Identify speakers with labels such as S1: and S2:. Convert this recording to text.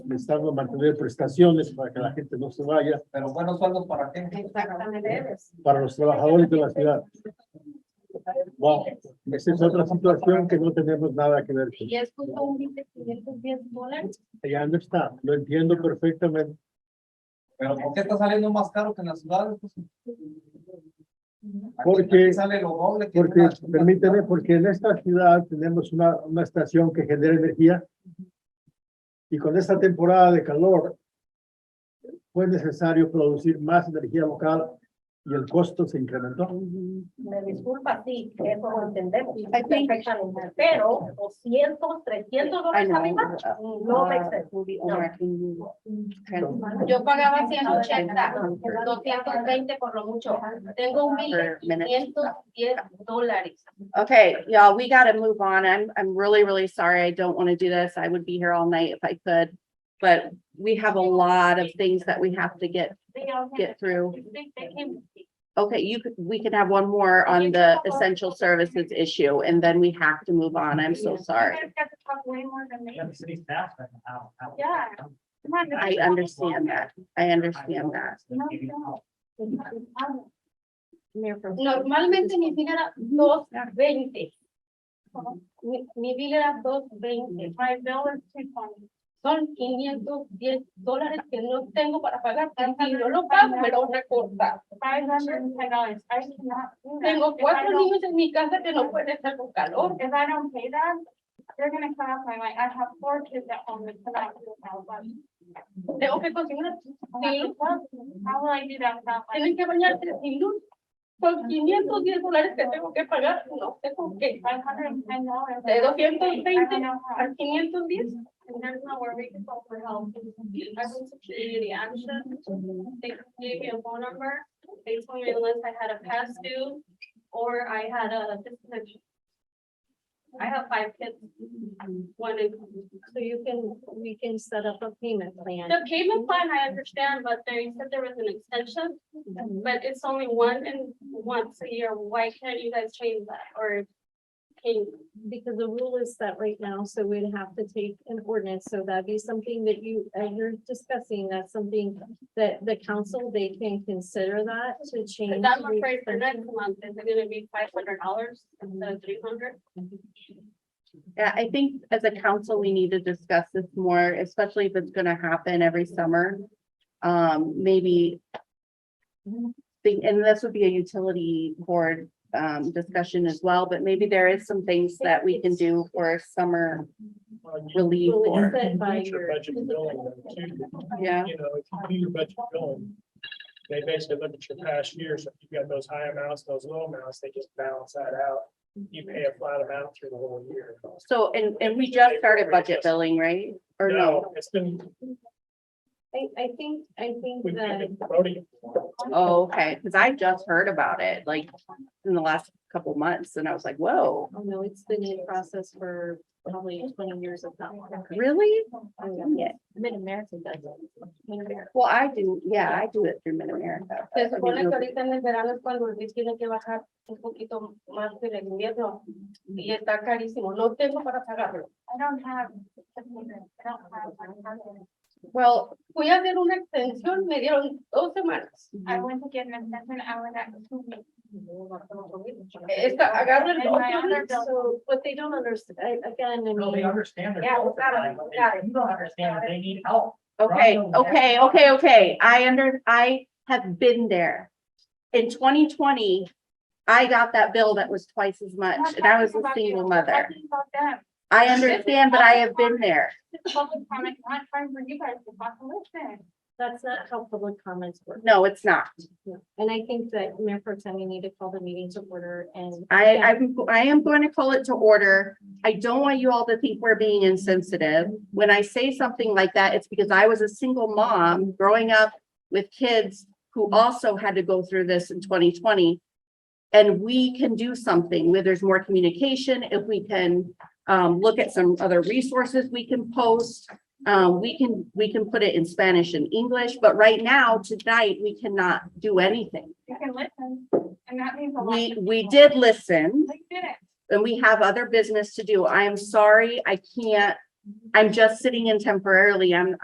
S1: les dan a mantener prestaciones para que la gente no se vaya,
S2: Pero buenos sueldos para qué?
S3: Exactamente.
S1: para los trabajadores de la ciudad. Wow, esa es otra situación que no tenemos nada que ver con.
S3: Y es justo un billete de 510 dólares.
S1: Ya no está, lo entiendo perfectamente.
S2: Pero ¿por qué está saliendo más caro que en las ciudades? Pues,
S1: Porque-
S2: Sale lo doble. que en
S1: Porque,
S2: una- una
S1: permíteme,
S2: ciudad.
S1: porque en esta ciudad tenemos una, una estación que genera energía. Y con esta temporada de calor, fue necesario producir más energía local y el costo se incrementó.
S4: Me disculpa, sí, eso lo entendemos
S3: I think-
S4: perfectamente, pero 200, 300
S5: I
S4: dólares
S5: know.
S4: a mi mano,
S5: uh,
S4: no me
S5: uh,
S4: excede.
S5: will be
S4: No.
S5: overacting you. Trans-
S3: Ah. Yo pagaba 180, 220 por lo mucho. Tengo un billete
S5: per
S3: de
S5: minute.
S3: 510 dólares.
S5: Okay, y'all, we gotta move on. I'm, I'm really, really sorry. I don't want to do this. I would be here all night if I could. But we have a lot of things that we have to get,
S3: They all have-
S5: get through.
S3: they- they can-
S5: Okay, you could, we can have one more on the essential services issue and then we have to move on. I'm so sorry.
S3: You guys got to talk way more than me.
S6: Yeah, the city staff, but how, how.
S3: Yeah. Come on,
S5: I understand that. I understand that.
S3: Normalmente mi bill era dos veinte. Mi, mi bill era dos veinte, five dollars, three pounds. Son quinientos diez dólares que no tengo para pagar, y si yo lo pago, me lo recorta. Tengo cuatro niños en mi casa que no pueden estar con calor.
S7: If I don't pay them, they're gonna cut off my light. I have four kids at home that cannot do without them.
S3: Tengo que cocinar sin luz,
S7: How will I do that without light?
S3: tienen que bañarse sin luz. Son quinientos diez dólares que tengo que pagar, no sé con qué.
S7: Five hundred and ten dollars.
S3: De doscientos veinte
S7: And
S3: a quinientos diez.
S7: there's nowhere we can go for help.
S3: I went to community action, they gave me a phone number, they told me unless I had a past due, or I had a disability. I have five kids. One is,
S4: So you can, we can set up a payment plan.
S3: the payment plan, I understand, but they said there was an extension, but it's only one and once a year, why can't you guys change that, or? Can,
S4: Because the rule is set right now, so we'd have to take an ordinance, so that'd be something that you, as you're discussing, that's something that the council, they can consider that to change.
S3: I'm
S4: the
S3: afraid for next
S4: extension.
S3: month, is it gonna be five hundred dollars instead of three hundred?
S5: Yeah, I think as a council, we need to discuss this more, especially if it's gonna happen every summer. Um, maybe. think- And this would be a utility board um discussion as well, but maybe there is some things that we can do for summer relief
S4: Well,
S5: or,
S4: it's set by
S8: future
S4: your-
S8: budget billing, though, too.
S5: yeah.
S8: you know, if you do your budget billing, they basically look at your past years, if you've got those high amounts, those low amounts, they just balance that out. You pay a flat amount through the whole year.
S5: So, and and we just started budget billing, right? Or no?
S8: It's been,
S4: I, I think, I think
S8: we've
S4: that.
S8: been voting.
S5: Oh, okay, because I just heard about it like in the last couple months and I was like, whoa,
S4: Oh, no, it's been in process for probably twenty years if not more.
S5: really?
S4: Oh, yeah.
S5: Yeah.
S4: Mid-America does it. Mid-America.
S5: Well, I do, yeah, I do it through Mid-America.
S3: Se supone que ahorita en el verano es cuando el bill tiene que bajar un poquito más que en el invierno y está carísimo, no tengo para pagarlo.
S7: I don't have. I don't have. my husband.
S5: Well,
S3: Fui a hacer una extensión, me dieron dos semanas.
S7: I went to get an extension. I was at two weeks.
S3: Esta, agarro el
S7: And my other bill-
S4: So, but they don't understand, again, I
S6: No, they
S4: mean,
S6: understand. their
S3: Yeah, we
S6: culture,
S3: got it,
S6: like,
S3: we got it.
S6: You don't understand that they need help.
S5: Okay,
S6: Rhino,
S5: okay,
S6: yeah.
S5: okay, okay. I under, I have been there. In twenty twenty, I got that bill that was twice as
S7: I'm not
S5: much and I was
S7: talking
S5: a
S7: about you.
S5: single
S7: I'm
S5: mother.
S7: talking About them.
S5: I understand, but I have been there.
S7: This is public comment, not trying for you guys to fucking listen.
S4: that's not how public comments work.
S5: No, it's not.
S4: And I think that Mayor Pro Tem, we need to call the meeting to order and.
S5: I, I'm, I am going to call it to order. I don't want you all to think we're being insensitive. When I say something like that, it's because I was a single mom growing up with kids who also had to go through this in twenty twenty. And we can do something where there's more communication, if we can, um, look at some other resources we can post. Um, we can, we can put it in Spanish and English, but right now, tonight, we cannot do anything.
S7: You can listen, and that means a lot.
S5: We,
S7: to
S5: we
S7: people.
S5: did listen
S7: They did it.
S5: and we have other business to do. I am sorry, I can't. I'm just sitting in temporarily. I'm,